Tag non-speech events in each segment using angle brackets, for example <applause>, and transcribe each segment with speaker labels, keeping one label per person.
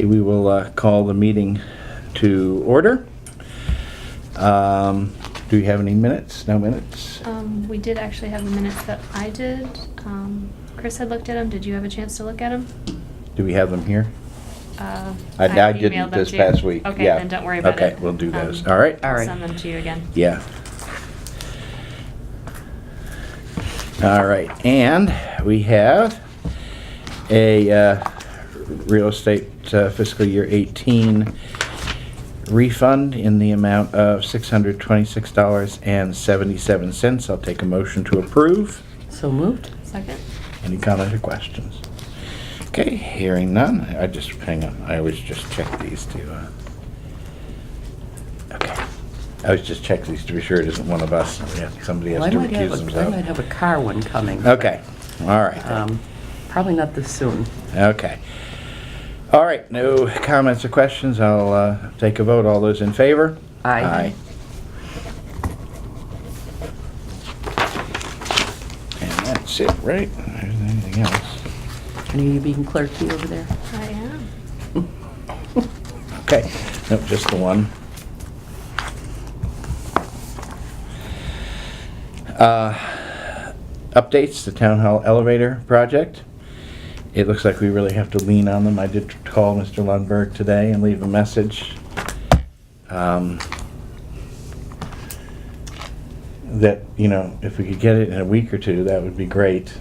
Speaker 1: we will uh, call the meeting to order. Um, Do we have any minutes? No minutes?
Speaker 2: Um, we did actually have the minutes that I did. Um, Chris had looked at them. Did you have a chance to look at them?
Speaker 1: Do we have them here?
Speaker 2: Uh,
Speaker 1: I I didn't
Speaker 2: emailed them
Speaker 1: this
Speaker 2: to you.
Speaker 1: past week.
Speaker 2: Okay,
Speaker 1: Yeah.
Speaker 2: then don't worry about it.
Speaker 1: Okay, we'll do those.
Speaker 2: Um,
Speaker 1: All right?
Speaker 3: All right.
Speaker 2: Send them to you again.
Speaker 1: Yeah. All right, and we have a uh, real estate uh, fiscal year 18 refund in the amount of $626.77. I'll take a motion to approve.
Speaker 3: So moved.
Speaker 2: Second?
Speaker 1: Any comments or questions? Okay, hearing none. I just, hang on, I always just check these to, uh, okay. I always just check these to be sure it isn't one of us. Yeah, Somebody
Speaker 3: Well,
Speaker 1: has
Speaker 3: I
Speaker 1: to
Speaker 3: might
Speaker 1: recuse
Speaker 3: have, a I might
Speaker 1: themselves.
Speaker 3: have a car one coming.
Speaker 1: Okay, all right,
Speaker 3: Um, Probably not this soon.
Speaker 1: okay. All right, no comments or questions. I'll uh, take a vote. All those in favor?
Speaker 3: Aye.
Speaker 1: And that's it, right? There's anything else.
Speaker 3: And Are you being clerky over there?
Speaker 2: I am.
Speaker 1: Okay, nope, just the one. Uh, Updates, the town hall elevator project. It looks like we really have to lean on them. I did call Mr. Lundberg today and leave a message. um, That, you know, if we could get it in a week or two, that would be great.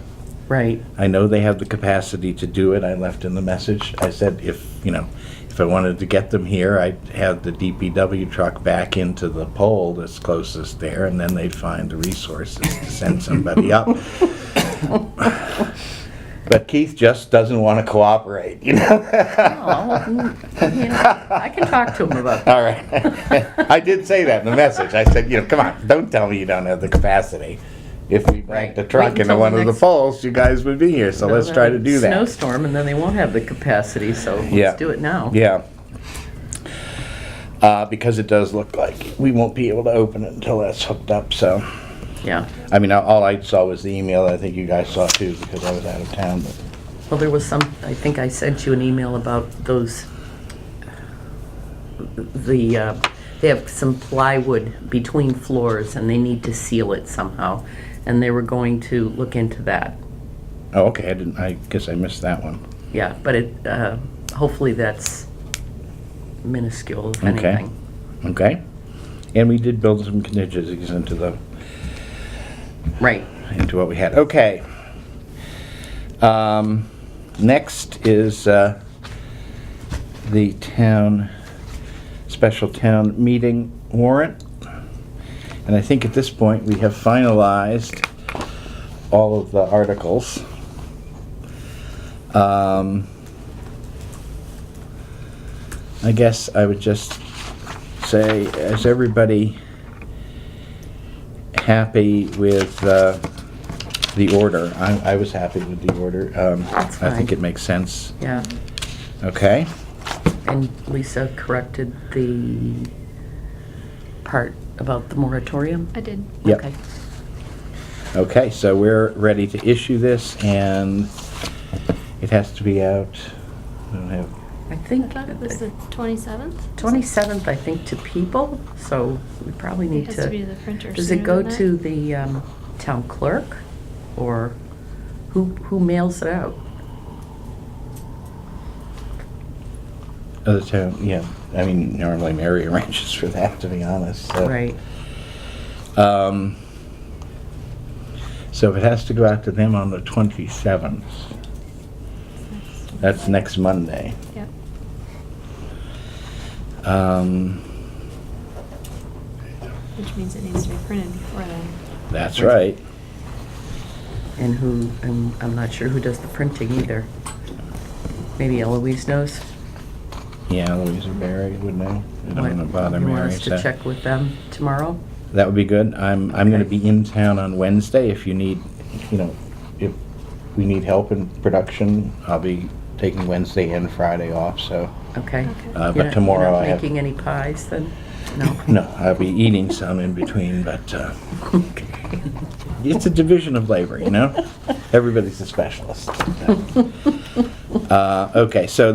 Speaker 3: Right.
Speaker 1: I know they have the capacity to do it. I left in the message. I said if, you know, if I wanted to get them here, I'd have the DPW truck back into the pole that's closest there, and then they'd find the resources to send somebody up. But Keith just doesn't want to cooperate, you
Speaker 3: Oh,
Speaker 1: know?
Speaker 3: mm, you know, I can talk to him about that.
Speaker 1: All right. I did say that in the message. I said, you know, come on, don't tell me you don't have the capacity. If we backed the
Speaker 3: Right.
Speaker 1: truck
Speaker 3: Wait
Speaker 1: into
Speaker 3: until
Speaker 1: one
Speaker 3: the
Speaker 1: of the
Speaker 3: next-
Speaker 1: poles, you guys would be here, so let's try to do that.
Speaker 3: Snowstorm, and then they won't have the capacity, so
Speaker 1: Yeah.
Speaker 3: let's do it now.
Speaker 1: Yeah. Uh, because it does look like we won't be able to open it until that's hooked up, so.
Speaker 3: Yeah.
Speaker 1: I mean, all- all I saw was the email, I think you guys saw too, because I was out of town, but.
Speaker 3: Well, there was some, I think I sent you an email about those, the, uh, they have some plywood between floors, and they need to seal it somehow, and they were going to look into that.
Speaker 1: Oh, okay, I didn't, I guess I missed that one.
Speaker 3: Yeah, but it, uh, hopefully that's minuscule, if
Speaker 1: Okay.
Speaker 3: anything.
Speaker 1: Okay? And we did build some contingencies into the,
Speaker 3: Right.
Speaker 1: into what we had. Okay. Um, next is, uh, the town, special town meeting warrant. And I think at this point, we have finalized all of the articles. Um, I guess I would just say, is everybody happy with uh, the order? I I was happy with the order. Um,
Speaker 3: That's
Speaker 1: I think
Speaker 3: fine.
Speaker 1: it makes sense.
Speaker 3: Yeah.
Speaker 1: Okay?
Speaker 3: And Lisa corrected the part about the moratorium?
Speaker 2: I did.
Speaker 1: Yep.
Speaker 3: Okay.
Speaker 1: Okay, so we're ready to issue this, and it has to be out, I don't have,
Speaker 3: I
Speaker 2: I
Speaker 3: think
Speaker 2: thought it was the 27th.
Speaker 3: 27th, I think, to people, so we probably
Speaker 2: It
Speaker 3: need
Speaker 2: has to be to
Speaker 3: to.
Speaker 2: the printer
Speaker 3: Does it go
Speaker 2: sooner than
Speaker 3: to
Speaker 2: that.
Speaker 3: the um, town clerk? Or who, who mails it out?
Speaker 1: other town, yeah, I mean, normally Mary <laughs> arranges for that, to be honest, so.
Speaker 3: Right.
Speaker 1: Um, So if it has to go out to them on the 27th, that's next Monday.
Speaker 2: Yep.
Speaker 1: Um,
Speaker 2: Which means it needs to be printed before then.
Speaker 1: That's right.
Speaker 3: And who, I'm, I'm not sure who does the printing either. Maybe Eloise knows?
Speaker 1: Yeah, Louisa Barry would know. I don't
Speaker 3: What-
Speaker 1: want to bother
Speaker 3: You
Speaker 1: Mary.
Speaker 3: want us to
Speaker 1: so-
Speaker 3: check with them tomorrow?
Speaker 1: That would be good. I'm, I'm gonna
Speaker 3: Okay.
Speaker 1: be in town on Wednesday if you need, you know, if we need help in production, I'll be taking Wednesday and Friday off, so.
Speaker 3: Okay.
Speaker 2: Okay.
Speaker 1: Uh,
Speaker 3: You're
Speaker 1: but
Speaker 3: not-
Speaker 1: tomorrow I
Speaker 3: You're not
Speaker 1: have,
Speaker 3: making any pies then? No?
Speaker 1: no, I'll be eating some in between, but, uh,
Speaker 3: Okay.
Speaker 1: it's a division of
Speaker 3: <laughs>
Speaker 1: labor, you know? Everybody's a specialist. Uh, okay, so